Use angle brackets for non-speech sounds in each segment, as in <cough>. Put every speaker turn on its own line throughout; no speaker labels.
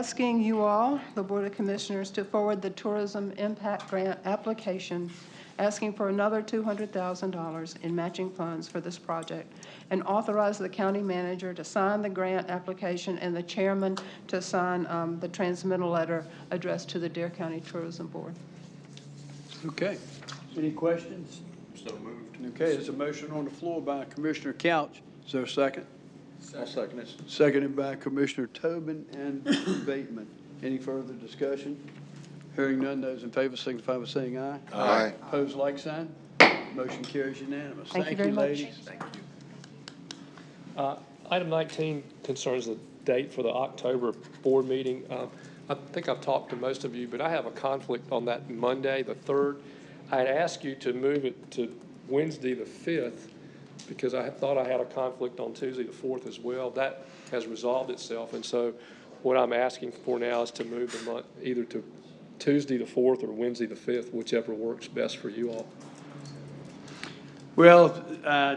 asking you all, the Board of Commissioners, to forward the Tourism Impact Grant application, asking for another $200,000 in matching funds for this project, and authorize the county manager to sign the grant application and the chairman to sign um, the transmittal letter addressed to the Dare County Tourism Board.
Okay. Any questions?
So moved.
Okay, there's a motion on the floor by Commissioner Couch. Is there a second?
I'll second it.
Seconded by Commissioner Tobin and <coughs> Bateman. Any further discussion? Hearing none, those in favor signify by saying aye.
Aye.
Opposed, like sign. Motion carries unanimous.
Thank you very much.
ladies.
Uh, Item 19 concerns the date for the October board meeting. Uh, I think I've talked to most of you, but I have a conflict on that Monday, the 3rd. I had asked you to move it to Wednesday, the 5th, because I had thought I had a conflict on Tuesday, the 4th as well. That has resolved itself, and so what I'm asking for now is to move the month, either to Tuesday, the 4th, or Wednesday, the 5th, whichever works best for you all.
Well, uh,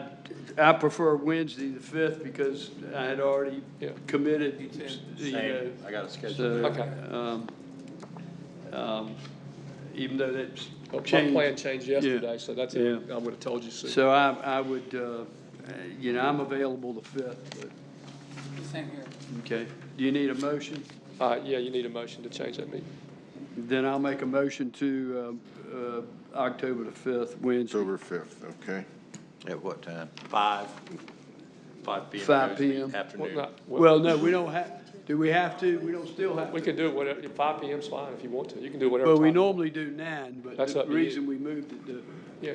I prefer Wednesday, the 5th, because I had already
Yeah.
committed, you know.
Same, I got it scheduled.
So,
Okay.
um, um, even though that's
But My plan
changed.
changed yesterday, so that's, it.
Yeah.
I would have told you soon.
So I, I would, uh, you know, I'm available the fifth, but,
Same here.
okay. Do you need a motion?
Uh, yeah, you need a motion to change that meeting.
Then I'll make a motion to, um, uh, October the fifth, Wednesday,
October 5th, okay?
At what time? Five. Five P M.
5 p.m..
Well,
Afternoon.
not- well,
Well, no, we don't have, do we have to? We don't still have
We
to.
can do it whatever, five P M's fine if you want to. You can do whatever.
Well, we
time.
normally do nine, but
That's
the
up to you.
reason we moved it to,
Yeah,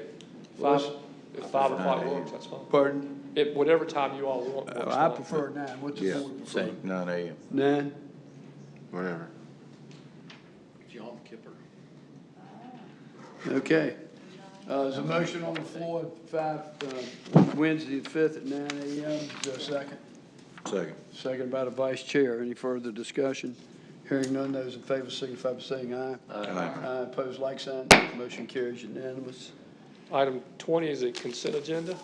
Well,
five, if five o'clock works, that's fine.
pardon?
If, whatever time you all want.
Uh,
works
I
fine.
prefer nine. What's the
Yeah,
board prefer?
Same.
nine AM,
Nine?
whatever.
John Kipper.
Okay. Uh, There's a motion on the floor, at five, uh, Wednesday, the 5th at nine a.m. Is there a second?
Second.
Second by the vice chair. Any further discussion? Hearing none, those in favor signify by saying aye.
Aye.
Aye, opposed, like sign. Motion carries unanimous.
Item twenty is a consent agenda.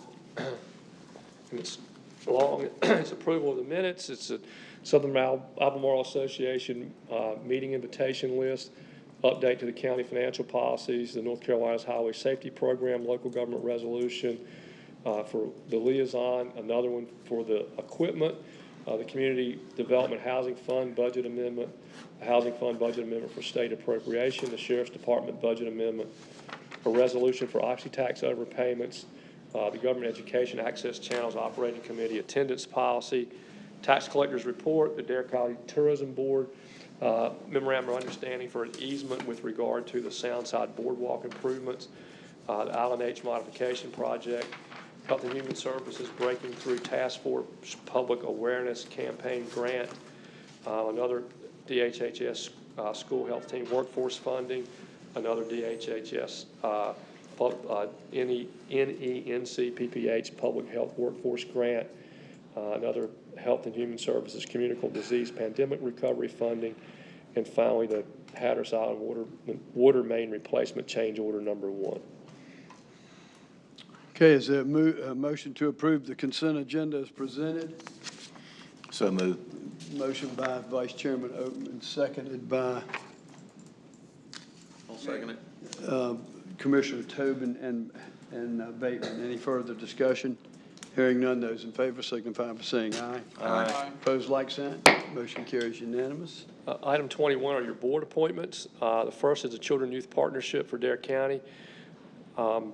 And it's long, <clears throat> it's approval of the minutes, it's a Southern Al- Albemarle Association, uh, meeting invitation list, update to the county financial policies, the North Carolina's Highway Safety Program, local government resolution, uh, for the liaison, another one for the equipment, uh, the Community Development Housing Fund budget amendment, the Housing Fund budget amendment for state appropriation, the Sheriff's Department budget amendment, a resolution for oxy tax overpayments, uh, the Government Education Access Channels Operating Committee Attendance Policy, Tax Collectors Report, the Dare County Tourism Board, uh, memorandum of understanding for an easement with regard to the Soundside Boardwalk improvements, uh, the Island H Modification Project, Health and Human Services Breaking Through Task Force Public Awareness Campaign Grant, uh, another DHHS uh, School Health Team Workforce Funding, another DHHS, uh, pub- uh, NE E NENC PPH Public Health Workforce Grant, uh, another Health and Human Services Communicable Disease Pandemic Recovery Funding, and finally, the Hatteras Island Water, Water Main Replacement Change Order Number One.
Okay, is there a mo, a motion to approve the consent agenda as presented?
So moved.
Motion by Vice Chairman Oatman, seconded by
I'll second it.
uh, Commissioner Tobin and, and uh, Bateman. Any further discussion? Hearing none, those in favor signify by saying aye.
Aye.
Opposed, like sign. Motion carries unanimous.
Uh, Item 21 are your board appointments. Uh, The first is the Children Youth Partnership for Dare County. Um,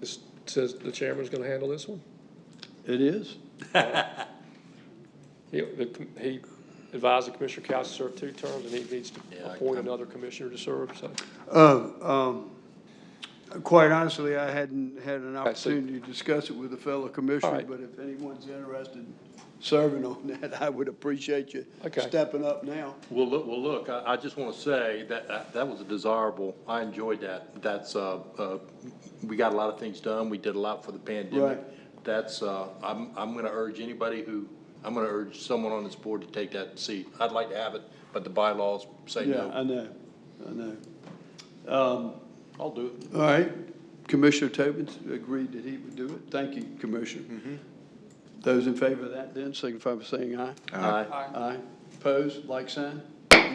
This says the chairman's going to handle this one.
It is?
He- the com- He advised the Commissioner Couch to serve two terms, and he needs to
Yeah, I-
appoint another commissioner to serve, so.
Oh, um, quite honestly, I hadn't had an
I see.
opportunity to discuss it with a fellow commissioner,
right.
but if anyone's interested in serving on <laughs> that, I would appreciate you
Okay.
stepping up now.
Well, look, well, look, I, I just want to say that, that, that was a desirable, I enjoyed that. That's, uh, uh, we got a lot of things done. We did a lot for the pandemic. That's, uh, I'm, I'm going to urge anybody who, I'm going to urge someone on this board to take that seat. I'd like to have it, but the bylaws say
Yeah,
no.
I know, I know. Um,
I'll do it.
all right, Commissioner Tobin agreed that he would do it. Thank you, Commissioner. Those in favor of that then signify by saying aye.
Aye.
Aye. Opposed, like sign.